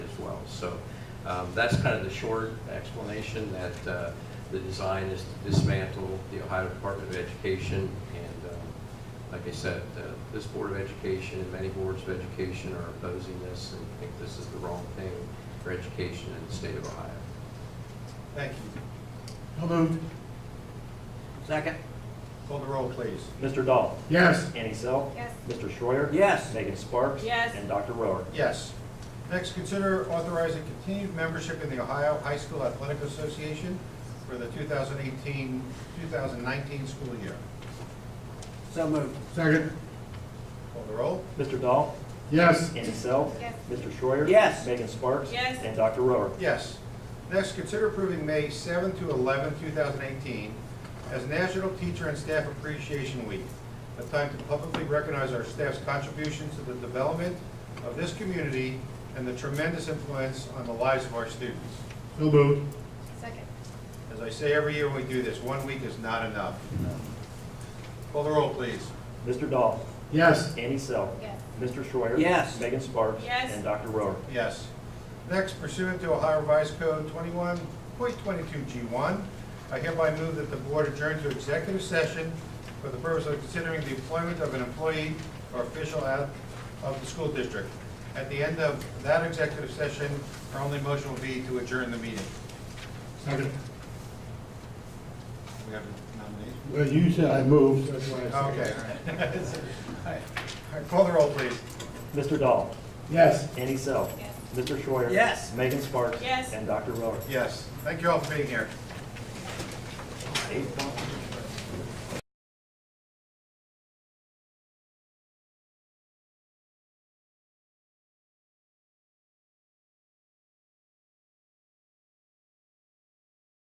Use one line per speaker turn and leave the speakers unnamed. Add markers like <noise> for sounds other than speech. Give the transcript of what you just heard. So um, that's kind of the short explanation, that uh, the design is to dismantle the Ohio Department of Education. And um, like I said, uh, this Board of Education and many boards of education are opposing this and think this is the wrong thing for education in the state of Ohio.
Thank you.
So moved.
Second?
Call the roll, please.
Mr. Dahl.
Yes.
Annie Selk.
Yes.
Mr. Schroyer,
Yes.
Megan Sparks.
Yes.
And Dr. Rohr.
Yes. Next, consider authorizing continued membership in the Ohio High School Athletic Association for the 2018, 2019 school year.
So moved.
Second.
Call the roll.
Mr. Dahl.
Yes.
Annie Selk.
Yes.
Mr. Schroyer,
Yes.
Megan Sparks.
Yes.
And Dr. Rohr.
Yes. Next, consider approving May 7 to 11, 2018 as National Teacher and Staff Appreciation Week, a time to publicly recognize our staff's contributions to the development of this community and the tremendous influence on the lives of our students.
So moved.
Second.
As I say every year when we do this, one week is not enough. Call the roll, please.
Mr. Dahl.
Yes.
Annie Selk.
Yes.
Mr. Schroyer,
Yes.
Megan Sparks.
Yes.
And Dr. Rohr.
Yes. Next, pursuant to Ohio Revised Code 21.22G1, I hereby move that the board adjourn to executive session for the purpose of considering the employment of an employee or official out of the school district. At the end of that executive session, our only motion will be to adjourn the meeting.
Second.
We have a nomination?
Well, you said I moved, that's why I said.
Okay. <laughs> all right. All right, Call the roll, please.
Mr. Dahl.
Yes.
Annie Selk.
Yes.
Mr. Schroyer,
Yes.
Megan Sparks.
Yes.
And Dr. Rohr.
Yes. Thank you all for being here.
Eight.